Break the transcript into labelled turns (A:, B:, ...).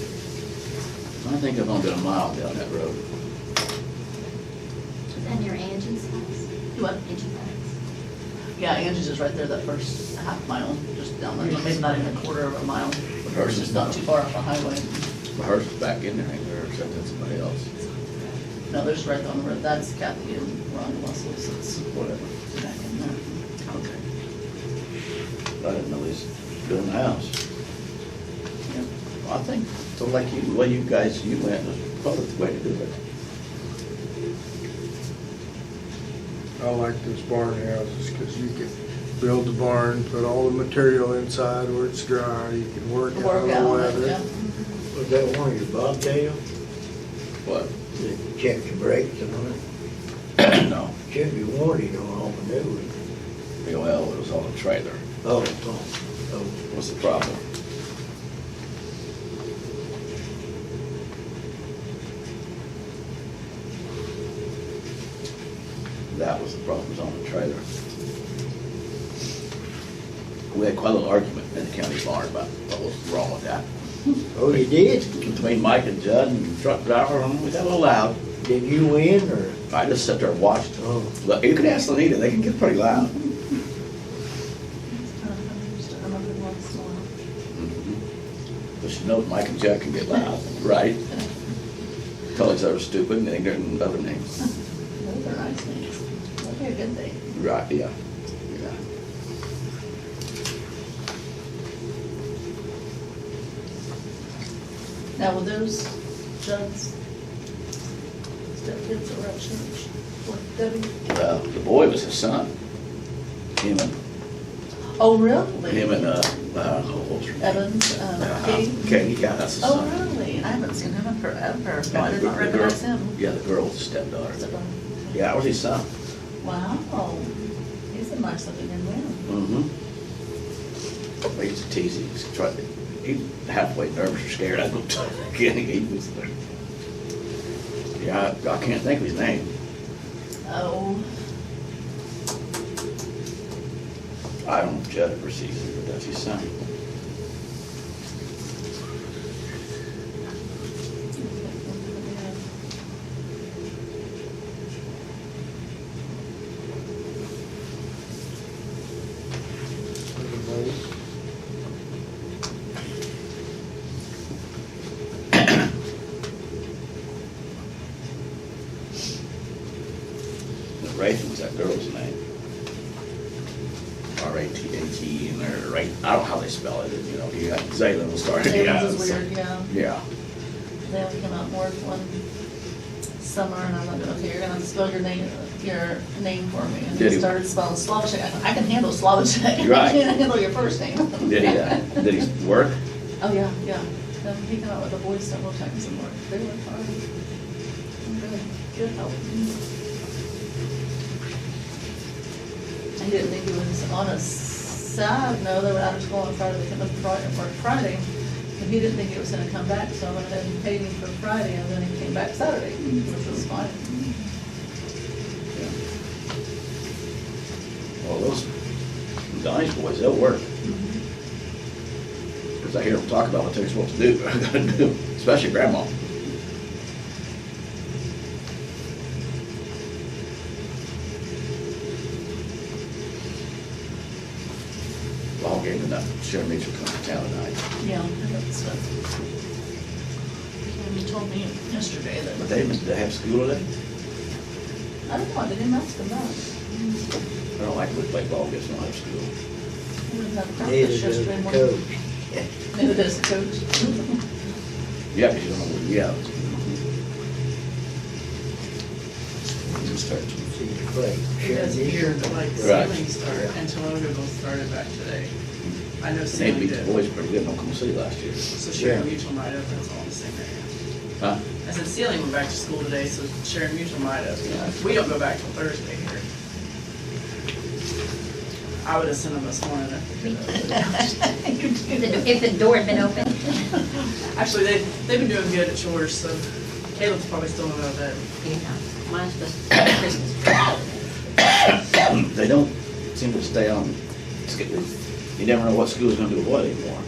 A: I think I've only done a mile down that road.
B: And your Angie's house?
C: What?
B: Angie's house.
C: Yeah, Angie's is right there, that first half mile, just down there, maybe not even a quarter of a mile.
A: Hers is not.
C: Too far off the highway.
A: Hers is back in there, ain't there, except that's somebody else.
C: No, there's right on the road, that's Kathy and Ron Russell's, it's whatever, it's back in there.
A: Okay. I didn't know he's doing the house.
C: Yeah.
A: I think, so like you, the way you guys, you went, was probably the way to do it.
D: I like those barn houses because you can build the barn, put all the material inside where it's dry, you can work out
C: Work
D: the
C: out,
D: weather.
C: yeah.
E: Was that one of your bobtail?
A: What?
E: Did check your brakes and all that?
A: No,
E: Check your warranty on all the new ones.
A: well, it was on a trailer,
E: Oh, oh, oh.
A: was the problem. That was the problem, was on the trailer. We had quite a little argument in the county barn about what was wrong with that.
E: Oh, you did?
A: Between Mike and Judd and the truck driver, we got a little loud.
E: Did you win or?
A: I just sat there and watched.
E: Oh.
A: Look, you can ask Lenita, they can get pretty loud. Mm-hmm. But she knows Mike and Jack can get loud, right? Call each other stupid and ignorant and other names.
C: Those are nice things, that'd be a good thing.
A: Right, yeah, yeah.
C: Now, were those Judd's stepkids that were at church with Debbie?
A: Well, the boy was his son. Him and,
C: Oh, really?
A: him and, uh, uh, who was her name?
C: Evans, um, Katie?
A: Uh, Katie, yeah, that's his
C: Oh,
A: son.
C: really? I haven't seen him in forever.
A: And
C: Well, I
A: the gir- the
C: did not
A: girl-
C: recognize him.
A: Yeah, the girl's
C: Is
A: stepdaughter.
C: it wrong?
A: Yeah, that was his son.
C: Wow, he's a nice looking young man.
A: Mm-hmm. I used to tease him, he's trying to, he halfway nervous or scared, I go, again, he was there. Yeah, I I can't think of his name.
C: Oh,
A: I don't judge or see it, but that's his son. The Wraith was that girl's name. R A T H E, and they're right, I don't know how they spell it, you know, you got Zayla will start. yeah,
C: Evans is
A: so-
C: weird, yeah.
A: Yeah,
C: They have come out and work one summer and I'm like, okay, you're gonna have to spell your name, your name for me.
A: Did
C: And they
A: he?
C: started spelling Slavacek. I go, I can handle Slavacek.
A: You're right.
C: I can't handle your first name.
A: did he, uh, did he work?
C: Oh, yeah, yeah. Um, he came out with a voice several times and worked. They were fine. Really Good help. He didn't think he was on a sad, no, they were out of school on Friday, they came up Friday, worked Friday. And he didn't think he was gonna come back, so I went ahead and paid him for Friday and then he came back Saturday, which was fine.
A: Yeah. Well, those Donnie's boys, they'll work. Because I hear them talk about what they're supposed to do, gotta do, especially grandma. Ball game tonight, Sharon Mitchell coming to town tonight,
C: Yeah, I got stuff. He told me yesterday that.
A: but they, they have school today?
C: I don't know, I didn't ask him that.
A: I don't like to play ball, guess not have school.
C: He was at practice
E: Neither does
C: yesterday
E: the
C: morning.
E: coach.
C: Neither does the coach.
A: Yeah, because you don't know, yeah. Just start to-
E: See you play.
F: Because here, like
A: Right.
F: ceiling start, and Toledo started back today. I know
A: They
F: ceiling
A: beat the
F: did,
A: boys pretty good in Oklahoma City last year.
F: so Sharon
E: Yeah.
F: Mutual might have, that's all I'm saying right
A: Huh?
F: now. I said ceiling went back to school today, so Sharon Mutual might have, we don't go back till Thursday here. I would have sent them this morning if we could have.
B: If the- If the door had been open.
F: Actually, they, they've been doing good at chores, so Caleb's probably still in that.
B: Yeah, mine's just Christmas tree.
A: They don't seem to stay on, schedule. you never know what school's gonna do what anymore.